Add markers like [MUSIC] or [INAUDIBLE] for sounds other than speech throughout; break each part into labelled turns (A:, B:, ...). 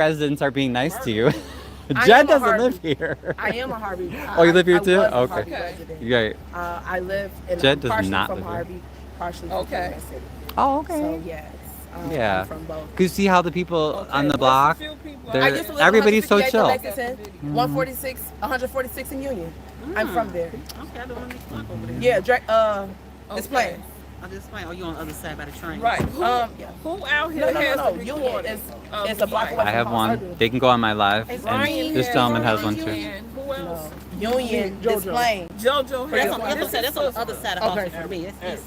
A: residents are being nice to you.
B: I
A: [LAUGHS]
B: am
A: Jen
B: a
A: doesn't
B: Harvey.
A: live here.
B: I am
A: [LAUGHS]
B: a Harvey. uh,
A: Oh, you live here
B: I- I
A: too?
B: was a
A: Okay.
B: Harvey
A: [LAUGHS]
C: Okay.
B: resident.
A: Right.
B: Uh, I live in
A: Jen
B: I'm
A: does
B: partially
A: not
B: from
A: live here.
B: Harvey, partially from
C: Okay.
B: Kansas City.
A: Oh,
B: So
A: okay.
B: yes, um, I'm
A: Yeah.
B: from both.
A: Could you see how the people on the block?
B: I
A: They're- Oh.
B: used to live
A: everybody's so
B: 158th
A: chill. Mm-hmm.
B: in Lexington, 146, 146 in Union. I'm
A: Mm.
B: from there.
D: Okay, the one next block over there.
B: Yeah, Dra- uh, it's
C: Okay.
B: playing.
D: Oh, this way. Oh, you on the other side by the train.
C: Right. Who,
B: Um, yeah.
C: who out
B: No,
C: here
B: no,
C: has
B: no,
C: a
B: no.
C: recording?
B: Union is
C: of
B: it's a block
C: Ryan?
B: away
A: I have one. They can go on my live.
C: um, Ryan
A: And this
C: has-
A: gentleman has one too.
C: Ryan, Who else?
B: No. Union is playing.
C: JoJo has.
D: That's on the other
C: this
D: side.
C: is
D: That's on the
C: sister.
D: other side of
B: Okay.
D: Austin for me. It's, it's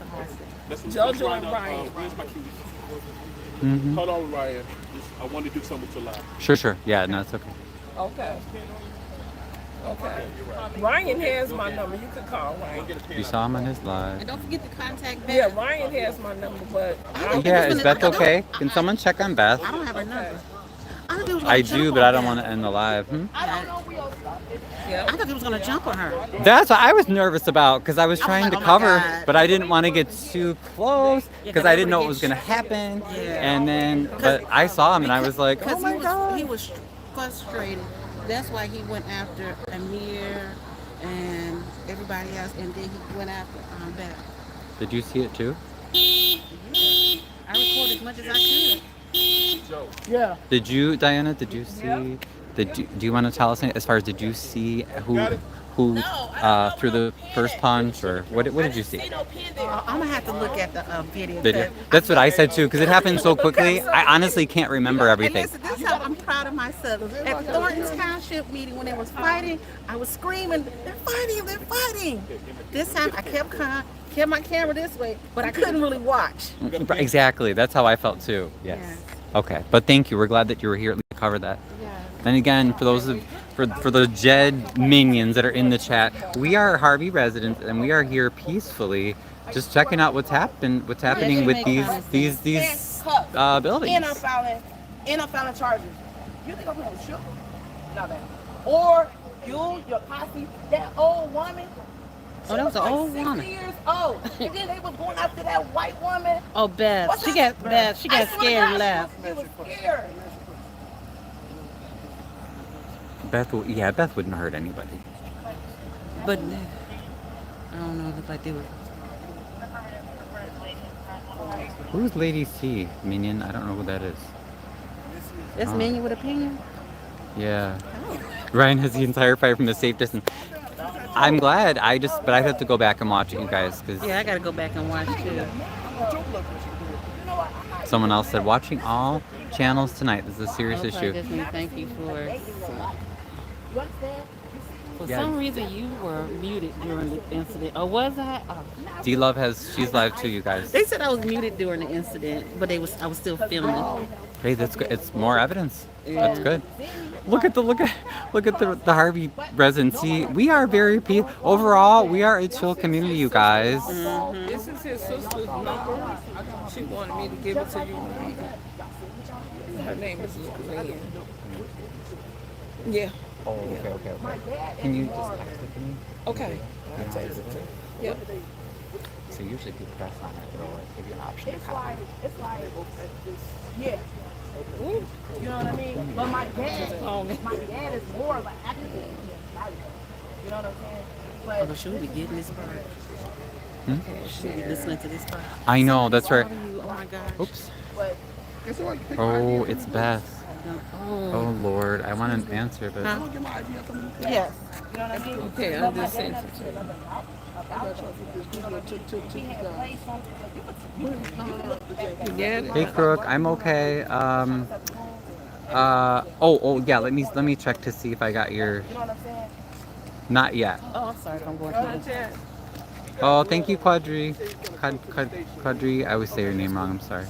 D: Austin.
C: JoJo and Ryan.
E: Where's uh, my keys?
A: Mhm.
E: Hold on, Ryan. Just- I want to do something with your life.
A: Sure, sure. Yeah, no, it's okay.
C: Okay. Okay. Ryan has my number. You could call Ryan.
A: You saw him on his live.
D: And don't forget to contact Beth.
C: Yeah, Ryan has my number, but I
D: Okay,
A: Yeah,
D: just
A: is
D: wanna-
A: Beth okay? Can someone check on Beth?
D: I don't have her number. I thought they was gonna
A: I
D: jump
A: do,
D: on
A: but I don't
D: Beth.
A: want to end the live. Hmm?
D: I thought they was gonna jump on her.
A: That's what I was nervous about because I was
D: I'm
A: trying
D: like,
A: to
D: oh my
A: cover,
D: God.
A: but I didn't want to get too close
D: Yeah,
A: because
D: 'cause
A: I didn't know what
D: everybody
A: was gonna
D: gets-
A: happen.
D: Yeah.
A: And then, but I saw him and I was like, oh
D: Because
A: my
D: he was,
A: god.
D: he was frustrated. That's why he went after Amir and everybody else, and then he went after um, Beth.
A: Did you see it too?
D: I recorded as much as I could.
B: Yeah.
A: Did you, Diana? Did you see? Did you, do you want to tell us any- as far as did you see who who uh, threw the first punch or what? What did you see? [LAUGHS]
D: Uh, I'm gonna have to look at the uh, video.
A: Did you,
D: but-
A: that's what I said too because it happened so quickly. I honestly can't remember
D: And
A: everything.
D: listen, this is how I'm proud of myself. At Thornton's Township meeting, when they was fighting, I was screaming, "They're fighting! They're fighting!" This time, I kept calm, kept my camera this way, but I couldn't really watch.
A: Exactly. That's how I felt too. Yes. Okay. But thank you. We're glad that you were here at least to cover that. And again, for those of for, for the Jed minions that are in the chat, we are Harvey residents and we are here peacefully, just checking out what's happened, what's happening with these these these uh,
B: And I'm
A: buildings.
B: filing, and I'm filing charges. You think I'm gonna shoot? No, ma'am. Or you, your posse, that old woman.
D: Oh, that was an
B: like
D: old
B: 60
D: woman.
B: years
D: [LAUGHS]
B: old. And then they was going after that white woman.
D: Oh, Beth,
B: What's
D: she
B: up,
D: got Beth, she got
B: I swear to
D: scared
B: God,
D: and left.
B: She was, she was scared.
A: Beth, w- yeah, Beth wouldn't hurt anybody.
D: But I don't know if I do it.
A: Who's Lady C minion? I don't know who that is.
D: That's
A: Oh.
D: menu with opinion.
A: Yeah.
D: Oh.
A: Ryan has the entire fight from the safe distance. I'm glad. I just, but I have to go back and watch it, you guys, because
D: Yeah, I gotta go back and watch too.
A: Someone else said, watching all channels tonight is a serious issue.
F: Thank you for. For
A: Yeah.
F: some reason, you were muted during the incident, or was I? Oh.
A: D Love has, she's live too, you guys.
D: They said I was muted during the incident, but they was I was still filming.
A: Hey, that's good. It's more evidence. That's
D: Yeah.
A: good. Look at the look at look at the, the Harvey residency. We are very peace. Overall, we are a chill community, you guys.
D: Mm.
C: This is his sister's number. She wanted me to give it to you. Her name is Lynn. Yeah,
A: Oh, okay, okay, okay. Can you just text it to me?
C: okay. Yep.
A: So usually if you press on it, it'll like, give you an option to copy.
B: Yeah. You know what I mean? But my dad, my dad is more of an activist. You know what I'm saying? But
D: Although she would be getting this part. She would be listening to this part.
A: I know. That's right.
D: Oh my gosh.
A: Oops.
B: But-
A: Oh, it's Beth. Oh Lord, I want an answer, but
D: Yes.
C: Okay, I'm just saying.
A: Hey Crook, I'm okay. Um, uh, oh, oh yeah. Let me let me check to see if I got your. Not yet.
D: Oh, I'm sorry if I'm going through this.
A: Oh, thank you, Quadri. Quad, quad, quadri. I always say your name wrong. I'm sorry.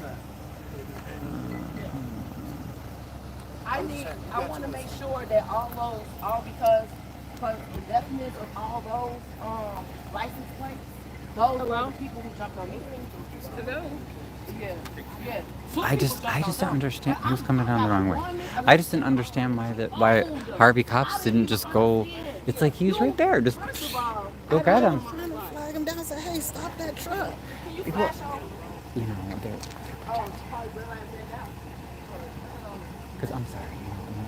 B: I need, I want to make sure that all those, all because, because the deafness of all those, um, license plates, those are the people who jumped on me.
C: Hello?
B: Yeah, yeah.
A: I just I just don't understand. Who's coming down the wrong way? I just didn't understand why that why Harvey cops didn't just go. It's like he's right there. Just go get him.
D: Flag him down and say, hey, stop that truck. Oh,
A: you know, they're. Because I'm sorry.